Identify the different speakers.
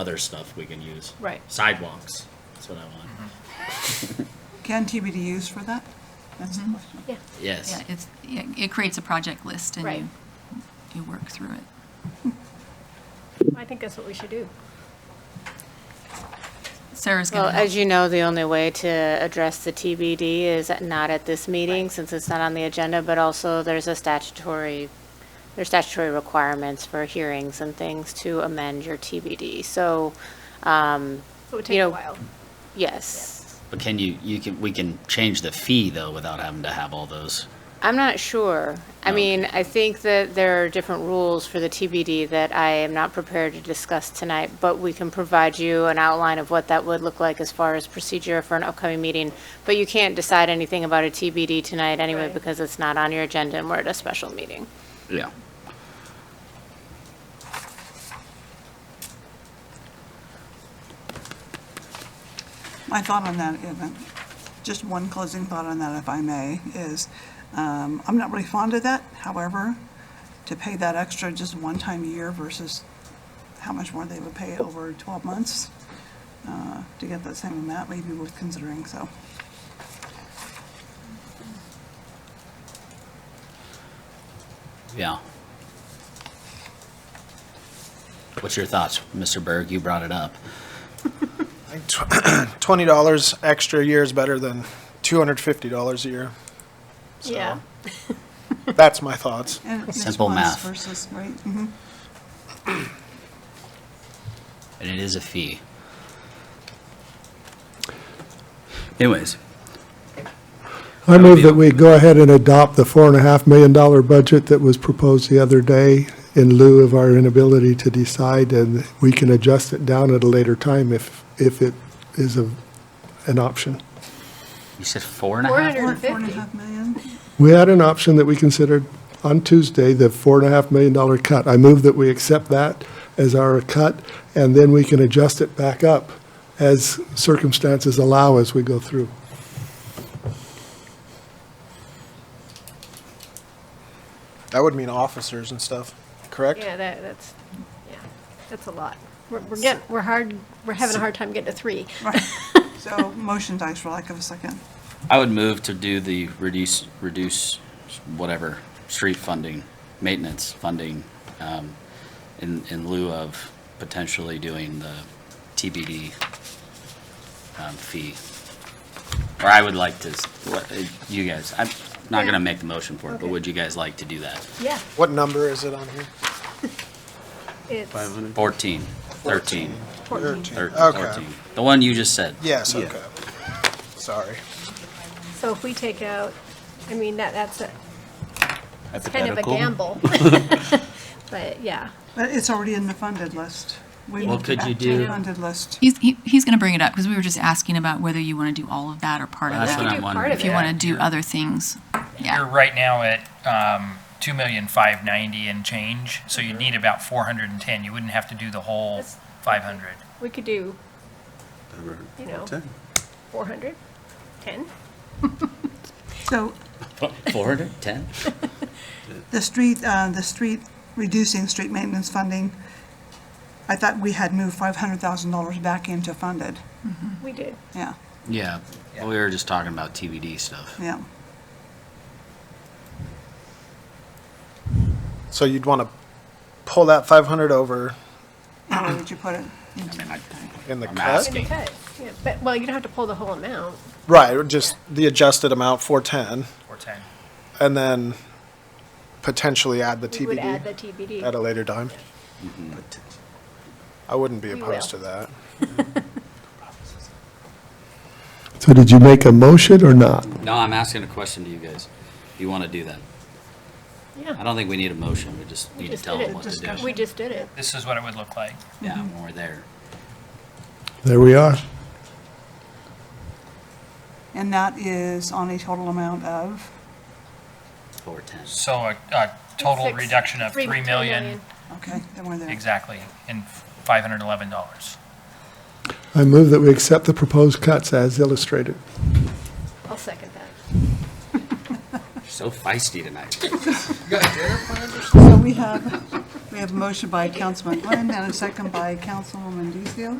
Speaker 1: other stuff we can use.
Speaker 2: Right.
Speaker 1: Sidewalks, that's what I want.
Speaker 3: Can TBD use for that? That's the question.
Speaker 2: Yeah.
Speaker 1: Yes,
Speaker 4: Yeah, it's, yeah, it creates a project list and
Speaker 2: Right.
Speaker 4: you, you work through it.
Speaker 2: I think that's what we should do.
Speaker 4: Sarah's
Speaker 5: Well,
Speaker 4: gonna
Speaker 5: as
Speaker 4: help.
Speaker 5: you know, the only way to address the TBD is not at this meeting, since it's not on the agenda, but also there's a statutory, there's statutory requirements for hearings and things to amend your TBD. So, um,
Speaker 2: It would
Speaker 5: You
Speaker 2: take a
Speaker 5: know,
Speaker 2: while.
Speaker 5: yes.
Speaker 1: but can you, you can, we can change the fee though without having to have all those.
Speaker 5: I'm not sure. I mean, I think that there are different rules for the TBD that I am not prepared to discuss tonight, but we can provide you an outline of what that would look like as far as procedure for an upcoming meeting. But you can't decide anything about a TBD tonight anyway
Speaker 2: Right.
Speaker 5: because it's not on your agenda and we're at a special meeting.
Speaker 1: Yeah.
Speaker 3: My thought on that, uh, just one closing thought on that, if I may, is um, I'm not really fond of that. However, to pay that extra just one time a year versus how much more they would pay over 12 months uh, to get that same amount may be worth considering, so.
Speaker 1: Yeah. What's your thoughts, Mr. Berg? You brought it up.
Speaker 6: twenty dollars extra a year is better than two hundred fifty dollars a year.
Speaker 2: Yeah.
Speaker 6: That's my thoughts.
Speaker 3: and it's
Speaker 1: Simple
Speaker 3: once
Speaker 1: math.
Speaker 3: Versus, right? mhm.
Speaker 1: And it is a fee.
Speaker 7: Anyways,
Speaker 8: I move that we go ahead and adopt the four and a half million dollar budget that was proposed the other day in lieu of our inability to decide, and we can adjust it down at a later time if, if it is a, an option.
Speaker 1: You said four and a half?
Speaker 2: Four
Speaker 3: Four
Speaker 2: hundred
Speaker 3: four and a half million.
Speaker 8: We had an option that we considered on Tuesday, the four and a half million dollar cut. I move that we accept that as our cut, and then we can adjust it back up as circumstances allow as we go through.
Speaker 6: That would mean officers and stuff, correct?
Speaker 2: Yeah, that, that's, yeah, that's a lot. We're, we're getting, we're hard, we're having a hard time getting to three.
Speaker 3: Right. So motion dies for lack of a second.
Speaker 1: I would move to do the reduce, reduce whatever, street funding, maintenance funding, um, in, in lieu of potentially doing the TBD, um, fee. Or I would like to, s- what, uh, you guys, I'm not gonna make the motion for it, but
Speaker 2: Okay.
Speaker 1: would you guys like to do that?
Speaker 2: Yeah,
Speaker 6: What number is it on here?
Speaker 2: it's
Speaker 1: Fourteen, thirteen,
Speaker 2: fourteen.
Speaker 1: thir-
Speaker 6: Okay.
Speaker 1: fourteen, the one you just said.
Speaker 6: Yes, okay. Sorry.
Speaker 2: So if we take out, I mean, that, that's a, it's kind of a
Speaker 7: hypothetical.
Speaker 2: gamble. But, yeah,
Speaker 3: But it's already in the funded list. We
Speaker 7: What
Speaker 3: moved
Speaker 7: could
Speaker 3: it
Speaker 7: you
Speaker 3: back to the
Speaker 7: do?
Speaker 3: Funded list.
Speaker 4: He's, he- he's gonna bring it up, because we were just asking about whether you want to do all of that or part of
Speaker 1: That's what
Speaker 2: could
Speaker 4: that.
Speaker 1: I'm
Speaker 2: do part
Speaker 1: wondering.
Speaker 2: of
Speaker 4: If you
Speaker 2: it.
Speaker 4: want to do other things,
Speaker 9: You're
Speaker 4: yeah.
Speaker 9: right now at um, two million five ninety and change, so you'd need about four hundred and ten. You wouldn't have to do the
Speaker 2: Mm-hmm.
Speaker 9: whole
Speaker 2: That's-
Speaker 9: five hundred.
Speaker 2: we could do, you know, four hundred, ten?
Speaker 3: So
Speaker 1: Four hundred, ten?
Speaker 3: The street, uh, the street, reducing street maintenance funding, I thought we had moved five hundred thousand dollars back into funded.
Speaker 2: We did.
Speaker 3: Yeah,
Speaker 1: Yeah, we were just talking about TBD stuff.
Speaker 3: yeah.
Speaker 6: So you'd want to pull that five hundred over
Speaker 3: Where would you put it?
Speaker 1: I mean, I-
Speaker 6: in the
Speaker 1: I'm
Speaker 6: cut?
Speaker 1: asking.
Speaker 2: We cut, yeah, but, well, you don't have to pull the whole amount.
Speaker 6: Right, or just the adjusted amount, four ten,
Speaker 9: Four ten.
Speaker 6: and then potentially add the
Speaker 2: We would add the TBD.
Speaker 6: TBD at a later time.
Speaker 1: Mm-hmm.
Speaker 6: I wouldn't be
Speaker 2: We
Speaker 6: opposed to
Speaker 2: will.
Speaker 6: that.
Speaker 8: So did you make a motion or not?
Speaker 1: No, I'm asking a question to you guys. You want to do that? I
Speaker 2: Yeah.
Speaker 1: don't think we need a motion, we just
Speaker 2: We
Speaker 1: need to
Speaker 2: just
Speaker 1: tell
Speaker 2: did
Speaker 1: them
Speaker 2: it.
Speaker 1: what to
Speaker 2: We
Speaker 1: do.
Speaker 2: just did it.
Speaker 9: This is what it would look like.
Speaker 1: Yeah, when we're there.
Speaker 8: There we are.
Speaker 3: And that is on a total amount of,
Speaker 1: Four ten.
Speaker 9: So a, a total
Speaker 2: Six-
Speaker 9: reduction of
Speaker 2: three-
Speaker 9: three
Speaker 2: three
Speaker 9: million,
Speaker 3: okay, then we're there.
Speaker 9: exactly, and five hundred and eleven dollars.
Speaker 8: I move that we accept the proposed cuts as illustrated.
Speaker 2: I'll second that.
Speaker 1: You're so feisty tonight.
Speaker 3: So we have We have a motion by Councilman Glenn and a second by Councilwoman DeCille.